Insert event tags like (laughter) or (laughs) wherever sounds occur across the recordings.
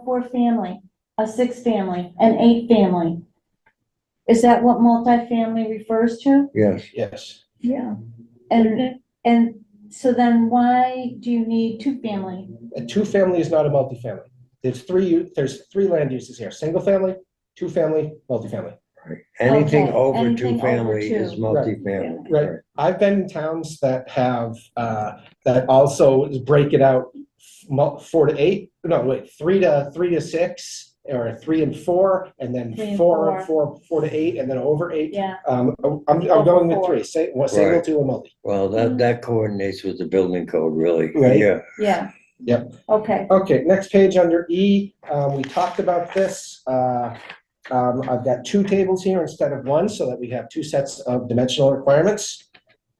four family, a six family, an eight family. Is that what multifamily refers to? yes. Yes. Yeah. And, and so then why do you need two family? A two-family is not a multifamily. There's three, u- there's three land uses here, single-family, two-family, multifamily. Anything Okay, over anything two over family is two. multifamily. Right. I've been in towns that have, uh, that also break it out mul- four to eight, no, wait, three to, three to six, or three and four, and Three then and four, four. four, four to eight, and then over eight. Yeah, Um, I'm, I'm going with three, say, what, single, Right. two, and multi. Well, that, Mhm. that coordinates with the building code, really. Right. Yeah, yeah. Yep. Okay, Okay, next page under E, um, we talked about this. Uh, um, I've got two tables here instead of one, so that we have two sets of dimensional requirements.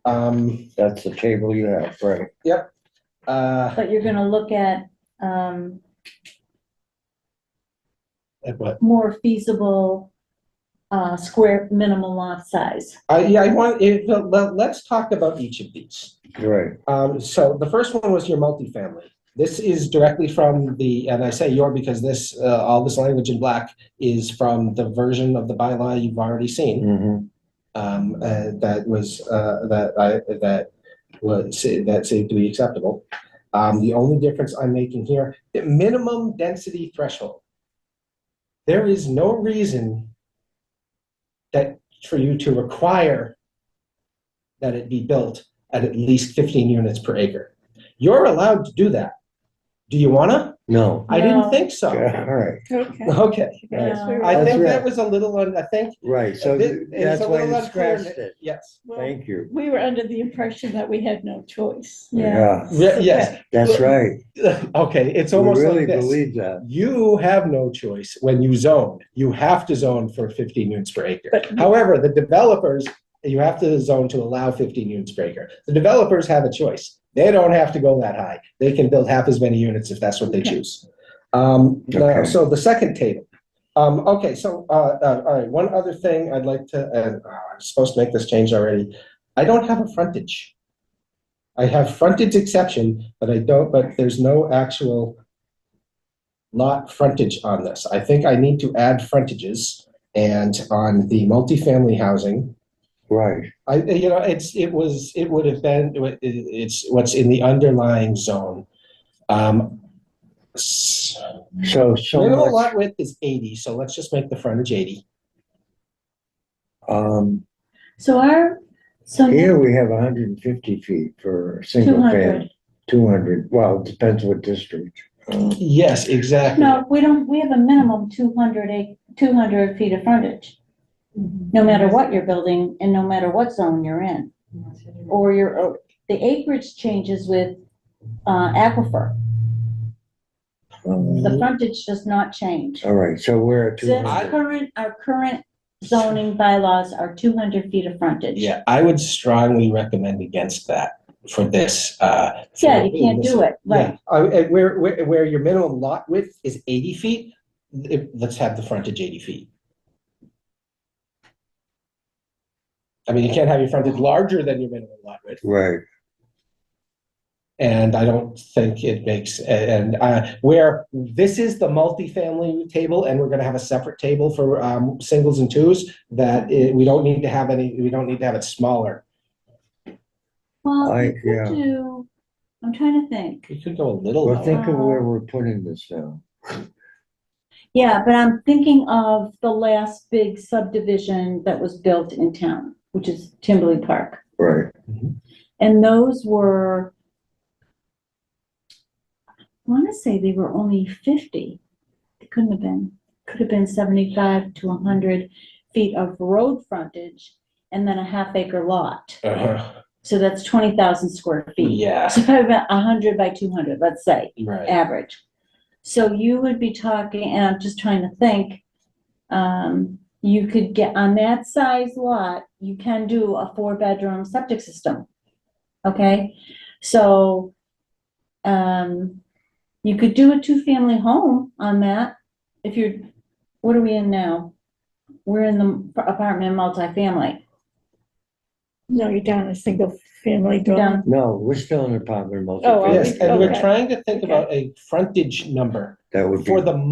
Um, that's the table you have, right. uh, but you're gonna look at, um, and what, more feasible, uh, square minimum lot size. I, yeah, I want, it, let, let's talk about each of these. Right, Um, so the first one was your multifamily. This is directly from the, and I say your because this, uh, all this language in black is from the version of the bylaw you've already seen. mhm, um, uh, that was, uh, that I, that was, that seemed to be acceptable. Um, the only difference I'm making here, the minimum density threshold. There is no reason that for you to require that it be built at at least fifteen units per acre. You're allowed to do that. Do you wanna? no, I didn't No. think so. yeah, all right, (laughs) Okay. Okay. Right. Oh. I That's think that right. was a little, un- I think, right, so It- th- it's that's a why little you unclear. scratched it, yes. thank you. We were under the impression that we had no choice. Yeah, Re- Yes, that's Well, right, Okay, it's we almost really like this. believe that, you have no choice when you zone. You have to zone for 15 units per acre. But- However, the developers, you have to zone to allow 15 units per acre. The developers have a choice. They don't have to go that high. They can build half as many units if that's what they choose. Um, now, Okay. So the second table. Um, okay, so uh, uh, all right. One other thing I'd like to. Uh, oh, I'm supposed to make this change already. I don't have a frontage. I have frontage exception, but I don't. But there's no actual lot frontage on this. I think I need to add frontages and on the multifamily housing. right, I, you know, it's, it was, it would have been, it- it's what's in the underlying zone. Um, s- so, so Minimum much, lot width is eighty, so let's just make the frontage eighty. um, So our, so here we have hundred and fifty feet for a two single hundred. family. Two hundred, well, it depends what district. Uh, Yes, exactly. No, we don't, we have a minimum 200 ac- 200 feet of frontage, no matter what you're building and no matter what zone you're in. Or your, or- the acreage changes with uh, aquifer. um, The frontage does not change. All right, so we're at two Since hundred. current, our current zoning bylaws are 200 feet of frontage. Yeah, I would strongly recommend against that for this, uh. Yeah, you can't do it, right. Yeah, uh, uh, where, where, where your minimum lot width is eighty feet, if, let's have the frontage eighty feet. I mean, you can't have your frontage larger than your minimum lot width, Right, and I don't think it makes, and, uh, where, this is the multifamily table, and we're gonna have a separate table for, um, singles and twos, that it, we don't need to have any, we don't need to have it smaller. Well, I- you yeah. could do, I'm trying to think. We could go a little well, lower. think of where we're putting this now. Yeah, but I'm thinking of the last big subdivision that was built in town, which is Timberley Park. Right, And those were, I want to say they were only 50. It couldn't have been, could have been 75 to 100 feet of road frontage and then a half acre lot. Uh-huh. So that's 20,000 square feet. Yeah, So probably about 100 by 200, let's say right. average. So you would be talking, and I'm just trying to think, um, you could get, on that size lot, you can do a four-bedroom septic system. Okay, so, um, you could do a two-family home on that, if you're, what are we in now? We're in the apartment multifamily, No, you're down a single family dwelling. down, no, we're still in apartment Oh, multifamily. Yes, and we're Okay. trying to think Okay. about a frontage number That would be. for the